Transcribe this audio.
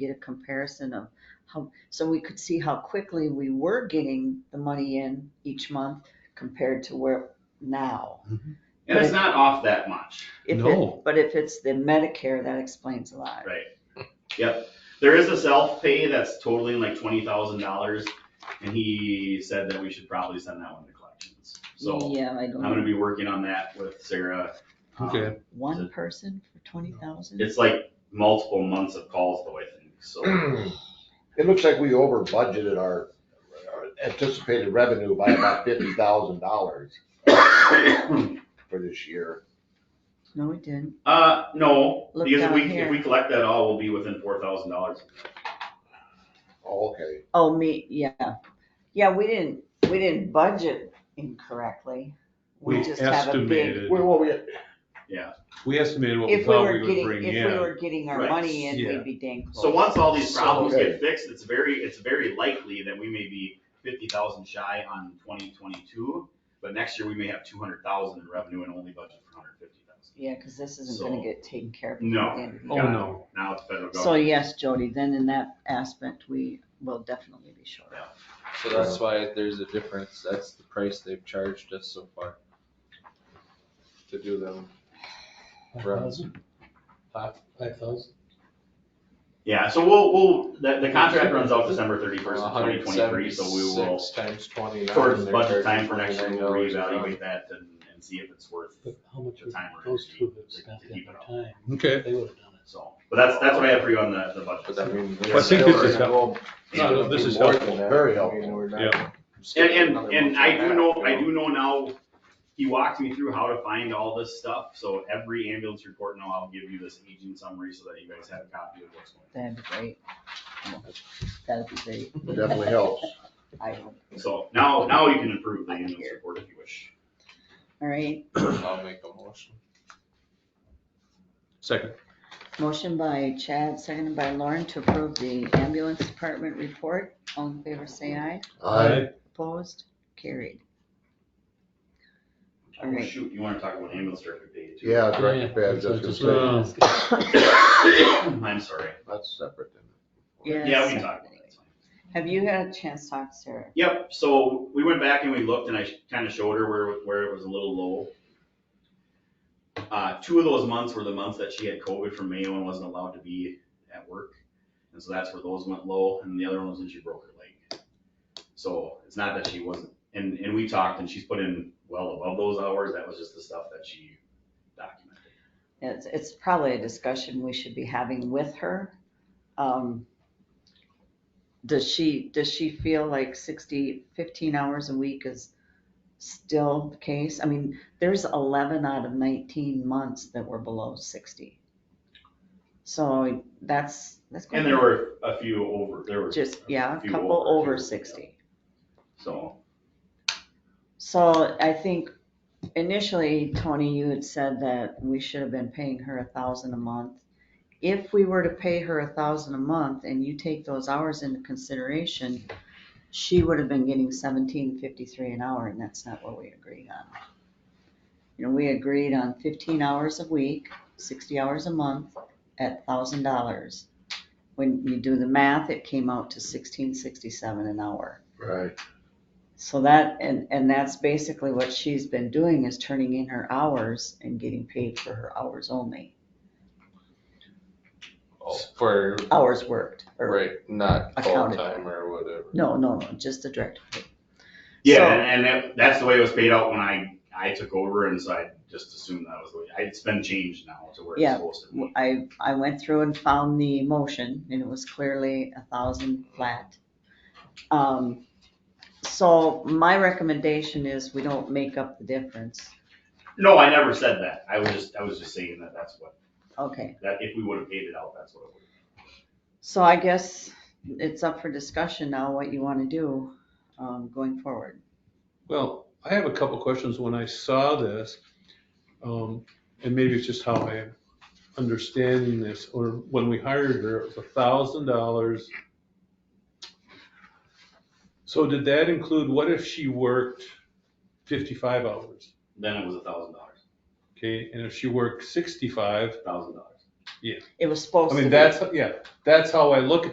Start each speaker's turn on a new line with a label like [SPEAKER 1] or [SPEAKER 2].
[SPEAKER 1] get a comparison of how, so we could see how quickly we were getting the money in each month compared to where now.
[SPEAKER 2] And it's not off that much.
[SPEAKER 1] If it-
[SPEAKER 3] No.
[SPEAKER 1] But if it's the Medicare, that explains a lot.
[SPEAKER 2] Right. There is a self-pay that's totaling like twenty thousand dollars, and he said that we should probably send that one to collections. So
[SPEAKER 1] Yeah, I
[SPEAKER 2] I'm gonna
[SPEAKER 1] don't,
[SPEAKER 2] be working on that with Sarah. Um,
[SPEAKER 3] Okay.
[SPEAKER 1] one person for twenty thousand?
[SPEAKER 2] It's like multiple months of calls though, I think, so.
[SPEAKER 4] It looks like we over budgeted our our anticipated revenue by about fifty thousand dollars for this year.
[SPEAKER 1] No, we didn't.
[SPEAKER 2] Uh, no,
[SPEAKER 1] Look
[SPEAKER 2] because if
[SPEAKER 1] down
[SPEAKER 2] we,
[SPEAKER 1] here.
[SPEAKER 2] if we collect that all, we'll be within four thousand dollars.
[SPEAKER 4] Oh, okay.
[SPEAKER 1] Oh, me, yeah. Yeah, we didn't, we didn't budget incorrectly. We
[SPEAKER 3] We
[SPEAKER 1] just have a big.
[SPEAKER 3] estimated,
[SPEAKER 4] Well, well, we,
[SPEAKER 3] we estimated what we
[SPEAKER 1] If we
[SPEAKER 3] thought
[SPEAKER 1] were
[SPEAKER 3] we would
[SPEAKER 1] getting,
[SPEAKER 3] bring
[SPEAKER 1] if we
[SPEAKER 3] in.
[SPEAKER 1] were getting our
[SPEAKER 2] Right.
[SPEAKER 1] money in,
[SPEAKER 3] Yeah.
[SPEAKER 1] we'd be dang close.
[SPEAKER 2] So once all these
[SPEAKER 1] So-
[SPEAKER 2] problems
[SPEAKER 4] Okay.
[SPEAKER 2] get fixed, it's very, it's very likely that we may be fifty thousand shy on twenty twenty-two, but next year we may have two hundred thousand in revenue and only budget for hundred fifty thousand.
[SPEAKER 1] Yeah, because this isn't gonna
[SPEAKER 2] So-
[SPEAKER 1] get taken care of.
[SPEAKER 2] No.
[SPEAKER 1] at the end of the
[SPEAKER 3] Oh,
[SPEAKER 1] year.
[SPEAKER 3] no.
[SPEAKER 2] Now it's federal
[SPEAKER 1] So
[SPEAKER 2] government.
[SPEAKER 1] yes, Jody, then in that aspect, we will definitely be short.
[SPEAKER 5] So that's why there's a difference, that's the price they've charged us so far. To do them. runs.
[SPEAKER 6] Five thousand?
[SPEAKER 2] Yeah, so we'll, we'll, the, the contract runs out December thirty-first of twenty
[SPEAKER 5] hundred
[SPEAKER 2] twenty-three,
[SPEAKER 5] seventy-six
[SPEAKER 2] so we will,
[SPEAKER 5] Times twenty.
[SPEAKER 2] towards budget time for next year, we'll reevaluate that and, and see if it's worth,
[SPEAKER 6] But how much
[SPEAKER 2] The time we're
[SPEAKER 6] goes
[SPEAKER 2] gonna
[SPEAKER 6] through
[SPEAKER 2] keep-
[SPEAKER 6] the stuff
[SPEAKER 2] to
[SPEAKER 6] in
[SPEAKER 2] keep
[SPEAKER 6] their
[SPEAKER 2] it up.
[SPEAKER 6] time?
[SPEAKER 3] Okay.
[SPEAKER 6] They would have done it.
[SPEAKER 2] so. But that's, that's what I have for you on the, the budget.
[SPEAKER 5] But I mean.
[SPEAKER 2] I
[SPEAKER 5] we're
[SPEAKER 3] think
[SPEAKER 5] still
[SPEAKER 3] this is
[SPEAKER 5] gonna go-
[SPEAKER 3] No, no, this is
[SPEAKER 5] more than
[SPEAKER 3] helpful.
[SPEAKER 5] that.
[SPEAKER 4] Very
[SPEAKER 5] I mean,
[SPEAKER 4] helpful.
[SPEAKER 5] we're not-
[SPEAKER 3] Yeah.
[SPEAKER 2] And, and, and I do
[SPEAKER 5] Another
[SPEAKER 2] know,
[SPEAKER 5] month and a half,
[SPEAKER 2] I
[SPEAKER 5] you
[SPEAKER 2] do know now, he walked me through how to find all this stuff, so every ambulance report now, I'll give you this agent summary so that you guys have a copy of what's
[SPEAKER 1] That'd
[SPEAKER 2] going
[SPEAKER 1] be great. That'd be great.
[SPEAKER 4] it definitely helps.
[SPEAKER 1] I hope.
[SPEAKER 2] on. So now, now you can improve the ambulance report if you wish.
[SPEAKER 1] All right,
[SPEAKER 5] know. I'll make a motion.
[SPEAKER 3] Second.
[SPEAKER 1] motion by Chad, seconded by Lauren to approve the ambulance department report. All in favor, say aye.
[SPEAKER 4] I,
[SPEAKER 1] Opposed, carried. All
[SPEAKER 2] Oh,
[SPEAKER 1] right.
[SPEAKER 2] shoot, you wanna talk about ambulance director pay too?
[SPEAKER 4] yeah, Director Pad, that's
[SPEAKER 6] Just
[SPEAKER 3] gonna
[SPEAKER 4] gonna say,
[SPEAKER 6] like that.
[SPEAKER 2] I'm sorry.
[SPEAKER 4] that's separate then.
[SPEAKER 1] Yeah,
[SPEAKER 2] Yeah, we
[SPEAKER 1] so-
[SPEAKER 2] can talk about that. It's fine.
[SPEAKER 1] Have you had a chance to talk to Sarah?
[SPEAKER 2] Yep, so we went back and we looked and I kind of showed her where, where it was a little low. Uh, two of those months were the months that she had COVID from Mayo and wasn't allowed to be at work. And so that's where those went low and the other one was when she broke her leg. So it's not that she wasn't, and, and we talked and she's put in well above those hours. That was just the stuff that she documented.
[SPEAKER 1] It's, it's probably a discussion we should be having with her. Um, Does she, does she feel like 60, 15 hours a week is still the case? I mean, there's 11 out of 19 months that were below 60. So that's, that's.
[SPEAKER 2] And there were a few over, there were.
[SPEAKER 1] Just, yeah, a
[SPEAKER 2] few
[SPEAKER 1] couple
[SPEAKER 2] a
[SPEAKER 1] over
[SPEAKER 2] few,
[SPEAKER 1] 60.
[SPEAKER 2] yeah. So,
[SPEAKER 1] So I think initially, Tony, you had said that we should have been paying her a thousand a month. If we were to pay her a thousand a month and you take those hours into consideration, she would have been getting seventeen fifty-three an hour and that's not what we agreed on. You know, we agreed on fifteen hours a week, sixty hours a month at thousand dollars. When you do the math, it came out to sixteen sixty-seven an hour.
[SPEAKER 4] Right.
[SPEAKER 1] So that, and, and that's basically what she's been doing is turning in her hours and getting paid for her hours only,
[SPEAKER 2] Oh,
[SPEAKER 5] For,
[SPEAKER 1] hours worked. or-
[SPEAKER 5] right, not
[SPEAKER 1] Accounted.
[SPEAKER 5] full-time or whatever.
[SPEAKER 1] No, no, no, just the direct pay.
[SPEAKER 2] Yeah,
[SPEAKER 1] So-
[SPEAKER 2] and, and that, that's the way it was paid out when I, I took over, and so I just assumed that was the way, it's been changed now to where it's
[SPEAKER 1] Yeah.
[SPEAKER 2] supposed to be.
[SPEAKER 1] I, I went through and found the motion and it was clearly a thousand flat. Um, so my recommendation is we don't make up the difference.
[SPEAKER 2] No, I never said that, I was just, I was just saying that that's what,
[SPEAKER 1] Okay,
[SPEAKER 2] that if we would have paid it out, that's what it would.
[SPEAKER 1] so I guess it's up for discussion now what you want to do, um, going forward.
[SPEAKER 3] Well, I have a couple questions. When I saw this, um, and maybe it's just how I'm understanding this, or when we hired her, it was a thousand dollars. So did that include, what if she worked fifty-five hours?
[SPEAKER 2] Then it was a thousand dollars,
[SPEAKER 3] Okay, and if she worked sixty-five,
[SPEAKER 2] thousand dollars.
[SPEAKER 3] Yeah.
[SPEAKER 1] It was supposed to
[SPEAKER 3] I
[SPEAKER 1] be.
[SPEAKER 3] mean, that's, yeah, that's how I look at